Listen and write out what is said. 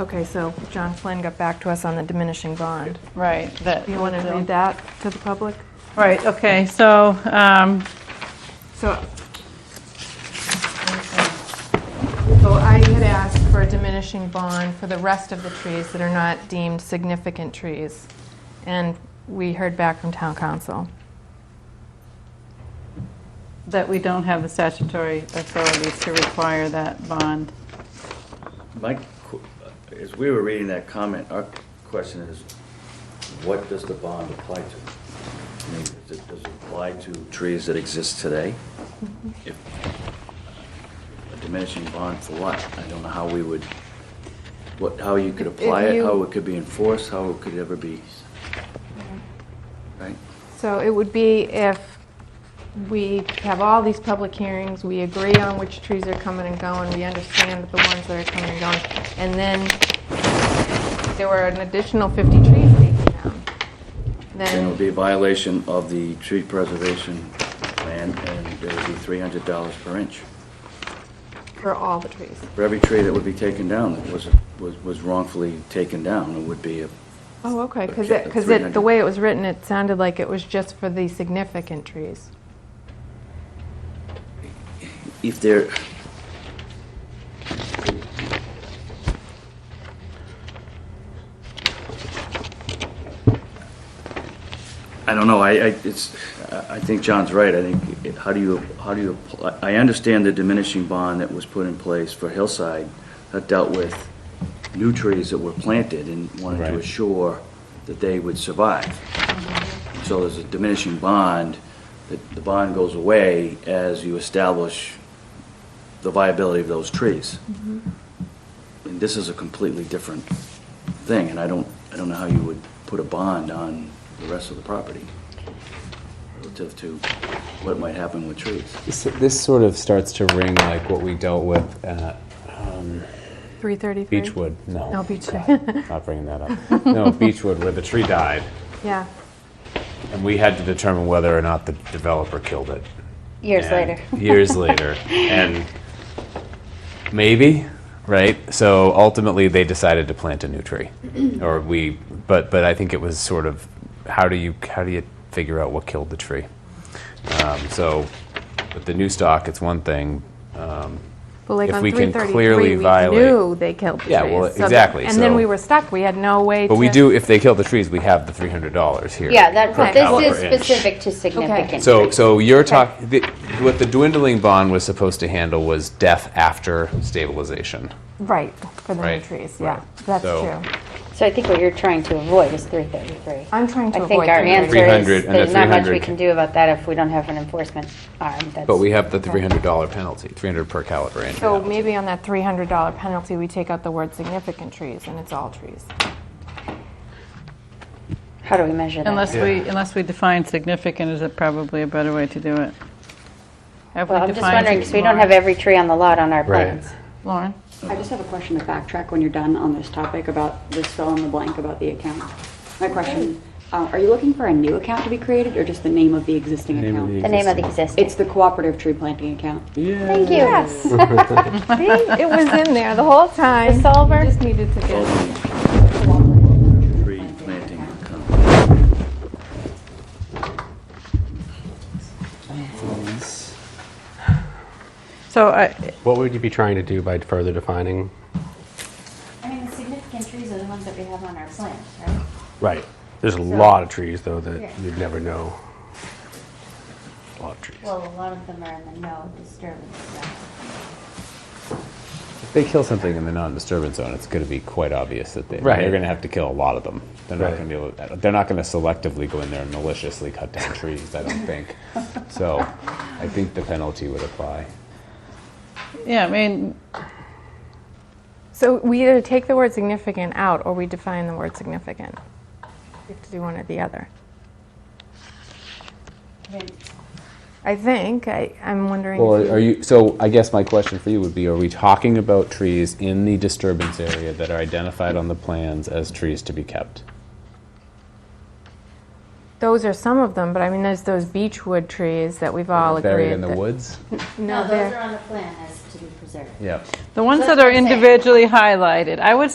Okay, so John Flynn got back to us on the diminishing bond. Right, that. You want to read that to the public? Right, okay, so, um, So, so I had asked for a diminishing bond for the rest of the trees that are not deemed significant trees, and we heard back from town council. that we don't have the statutory authorities to require that bond. My, qu- as we were reading that comment, our question is, what does the bond apply to? I mean, does it, does it apply to trees that exist today? Mm-hmm. If A diminishing bond for what? I don't know how we would, what, how you could If- if apply it, you- how it could be enforced, how it could ever be, right? So it would be if we have all these public hearings, we agree on which trees are coming and going, we understand the ones that are coming and going, and then there were an additional 50 trees taken down. Then it Then, would be a violation of the tree preservation plan, and it would be three hundred dollars per inch. for all the trees. For every tree that would be taken down that was, was was wrongfully taken down, it would be a, Oh, okay, because Okay, it, because it, the 300. way it was written, it sounded like it was just for the significant trees. if there, I don't know, I, I, it's, I I think John's right, I think, it- how do you, how do you, apply- I understand the diminishing bond that was put in place for Hillside that dealt with new trees that were planted and wanted to Right. assure that they would survive. So there's a diminishing bond, that the bond goes away as you establish the viability of those trees. And this is a completely different thing, and I don't, I don't know how you would put a bond on the rest of the property relative to what might happen with trees. This, this sort of starts to ring like what we dealt with at um, 333? Beechwood. No. Oh, No, Beechwood. God, Not bringing that up. No, Beechwood, where the tree died, Yeah, and we had to determine whether or not the developer killed it. Years And- later. years later, and maybe right. So ultimately, they decided to plant a new tree, or we. But but I think it was sort of how do you how do you figure out what killed the tree? Um, so with the new stock, it's one thing. Um, but like If on we can 333, clearly we violate- knew they killed the trees. Yeah, well, so that- exactly, And then so- we were stuck, we had no way to. but we do if they kill the trees, we have the three hundred dollars here. Yeah, that, per but pound this is per inch. specific to significant. So, so you're talking, what the dwindling bond was supposed to handle was death after stabilization. Right, for the new Right, trees, yeah, right. that's So- true. So I think what you're trying to avoid is 333. I'm trying to I think avoid our 333. answer 300 is, and the there's not much we 300. can do about that if we don't have an enforcement arm. But we have the three hundred dollar penalty, three hundred per caliber annual. So penalty. maybe on that $300 penalty, we take out the word significant trees, and it's all trees. How do we measure that? Unless we, unless we define significant, is it probably a better way to do it? Have we Well, I'm just defined wondering, because we don't have every tree on the lot on our Right. plans. Lauren? I just have a question to backtrack when you're done on this topic about this fill in the blank about the account. My question, uh, are you looking for a new account to be created or just the name of the existing account? The name of the existing. It's the cooperative tree planting account. Thank you. Yes. See, it was in there the whole time. The solver? Just needed to get, Tree planting company. So I, What would you be trying to do by further defining? I mean, the significant trees are the ones that we have on our plant, right? Right. There's a lot of trees, though, that you'd never know. A lot of trees. Well, a lot of them are in the no disturbance zone. If they kill something in the non-disturbance zone, it's going to be quite obvious that they, Right. they're going to have to kill a lot of them. They're not Right. going to be able. They're not going to selectively go in there and maliciously cut down trees. I don't think. So, I think the penalty would apply. yeah, I mean, so we either take the word significant out, or we define the word significant. We have to do one or the other. I think, I, I'm wondering. if Well, are you? So, I guess my question for you would be: Are we talking about trees in the disturbance area that are identified on the plans as trees to be kept? Those are some of them, but I mean, there's those beechwood trees that we've all agreed. Buried in the that- woods. No, No, they're- those are on the plan as to be preserved. Yeah. the ones that That's are what I'm saying. individually highlighted, I would